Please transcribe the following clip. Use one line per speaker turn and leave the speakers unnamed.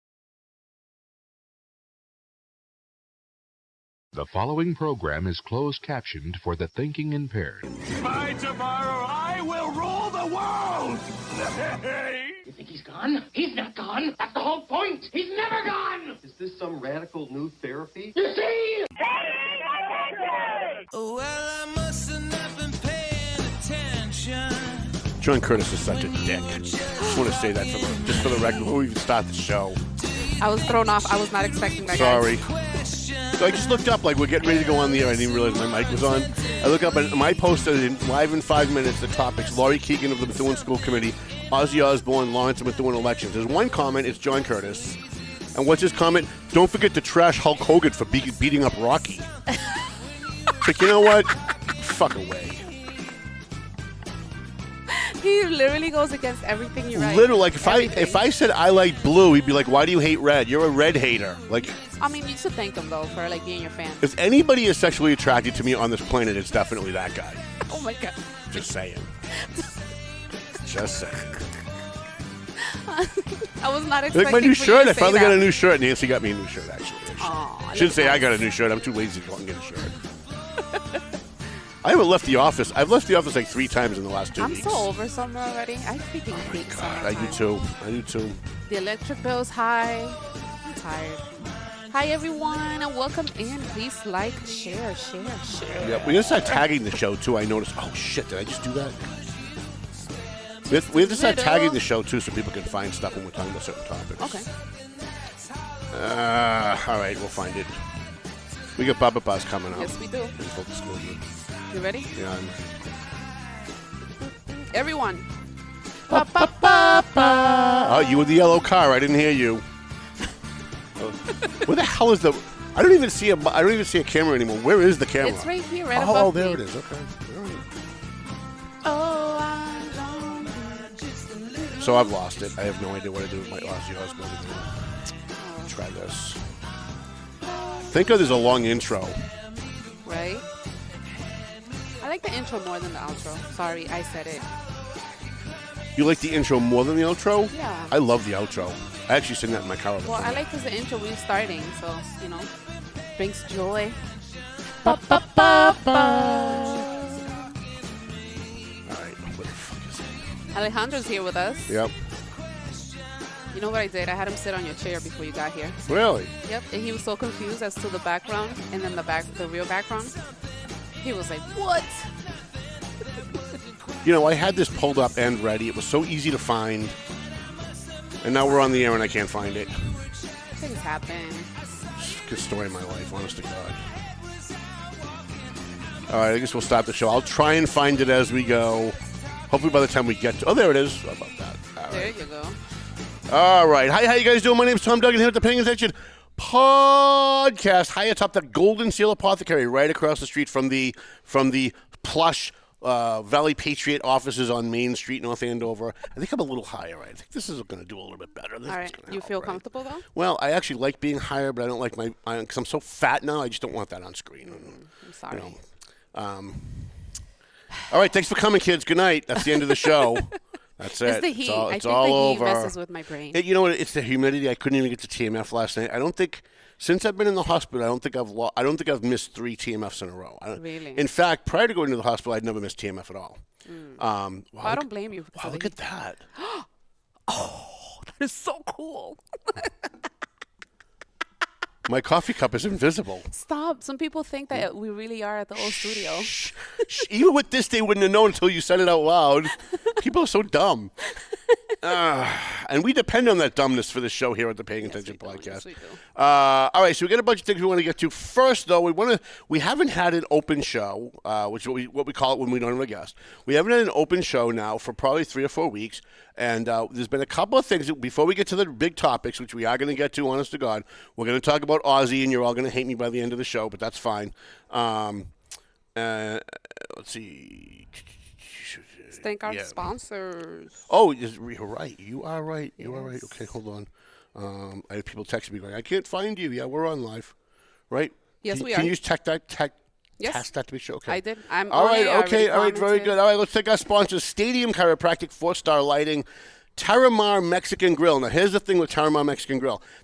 The following program is closed captioned for the thinking impaired.
By tomorrow, I will rule the world!
You think he's gone? He's not gone. That's the whole point. He's never gone.
Is this some radical new therapy?
You see?
Well, I must have not been paying attention.
John Curtis is such a dick. I just want to say that for the, just for the record before we even start the show.
I was thrown off. I was not expecting that. guys.
Sorry. So I just looked up, like we're getting ready to go on the air. I didn't realize my mic was on. I look up and my posted in live in five minutes the topics: Laurie Keegan of the Methuen School Committee, Ozzy Osbourne, Lawrence of Methuen elections. There's one comment. It's John Curtis, and what's his comment? Don't forget to trash Hulk Hogan for be- beating up Rocky. It's like you know what? Fuck away.
He literally goes against everything you write.
Literally, like if I
Everything.
if I said I like blue, he'd be like, "Why do you hate red? You're a red hater." Like.
I mean, you should thank him though for like being your fan.
If anybody is sexually attracted to me on this planet, it's definitely that guy.
Oh my god.
Just saying. Just saying.
I was not expecting.
Like my new
for you
shirt.
to
I
say
finally
that.
got a new shirt. Nancy got me a new shirt, actually.
Aw, I
Shouldn't
look
say I
nice.
got a new shirt. I'm too lazy to go out and get a shirt. I haven't left the office. I've left the office like three times in the last 2
I'm
weeks.
so over summer already. I freaking hate summer.
Oh I do too. I do too.
The electric bill's high. I'm tired. Hi everyone and welcome in. Please like, share, share, share.
Yeah, we're gonna start tagging the show too. I noticed. Oh shit! Did I just do that? We have, we have to start
Little.
tagging the show too, so people can find stuff when we're talking about certain topics.
Okay.
Uh, all right, we'll find it. We got Baba Bus coming up.
Yes, we do.
In full disclosure.
You ready?
Yeah, I'm-
Everyone.
Oh, you were the yellow car. I didn't hear you. Where the hell is the? I don't even see a. I don't even see a camera anymore. Where is the camera?
It's right here, right
oh,
above
there
me.
it is. Okay. All right.
Oh, I love
So I've lost it. I have no idea what to do with my Aussie husband. Try this. Think of there's a long intro.
you. Right? I like the intro more than the outro. Sorry, I said it.
You like the intro more than the outro?
Yeah.
I love the outro. I actually sing that in my car. all the
Well, I
time.
like because the intro we're starting, so you know, brings joy.
All right. What the fuck is that?
Alejandro's here with us.
Yep.
You know what I did? I had him sit on your chair before you got here.
Really?
Yep. And he was so confused as to the background and then the back, the real background. He was like, "What?"
You know, I had this pulled up and ready. It was so easy to find. And now we're on the air and I can't find it.
Things happen.
Good story of my life, honest to God. All right, I guess we'll stop the show. I'll try and find it as we go. Hopefully, by the time we get to. Oh, there it is. How about that? All right.
There you go.
All right. Hi, how you guys doing? My name's Tom Duggan here with the Paying Attention podcast. High atop the Golden Seal Apothecary, right across the street from the from the plush uh, Valley Patriot offices on Main Street, North Andover. I think I'm a little higher. Right? I think this is going to do a little bit better. This
All
is
right.
gonna
You
help,
feel
right?
comfortable though?
Well, I actually like being higher, but I don't like my because I'm so fat now. I just don't want that on screen.
I'm sorry.
You know. Um, all right, thanks for coming, kids. Good night. That's the end of the show. That's it.
It's the heat.
It's all,
I
it's
think
all
the
over.
heat messes with my brain.
It- you know what? It's the humidity. I couldn't even get to TMF last night. I don't think since I've been in the hospital, I don't think I've lo- I don't think I've missed three TMFs in a row. I don't-
Really?
In fact, prior to going to the hospital, I'd never missed TMF at all. Um, wow,
Mm. I
look-
don't blame you. for
Wow,
the
look
heat.
at that.
That is so cool.
My coffee cup is invisible.
Stop. Some people think that we really are at the old studio.
Shh, shh. Even with this, they wouldn't have known until you said it out loud. People are so dumb. Ah, and we depend on that dumbness for this show here at the Paying Attention
we do.
Podcast.
Yes, we do.
Uh, all right, so we got a bunch of things we want to get to. First, though, we want to. We haven't had an open show, uh, which is what we what we call it when we don't have a guest. We haven't had an open show now for probably three or four weeks, and uh, there's been a couple of things. That, before we get to the big topics, which we are going to get to, honest to God, we're going to talk about Aussie, and you're all going to hate me by the end of the show, but that's fine. Um, uh, let's see.
Thank our
Yeah.
sponsors.
Oh, yes, you're right. You are right. You are right. Okay, hold on. Um, I had people texting me going, "I can't find you." Yeah, we're on live, right?
Yes,
can,
we
Can
are.
you tech that tech?
Yes.
Task that to be sure. Okay.
I did. I'm
all
on
right.
it. I already
Okay. All right. Very
commented.
good. All right. Let's take our sponsors: Stadium Chiropractic, Four Star Lighting, Taramar Mexican Grill. Now, here's the thing with Taramar Mexican Grill: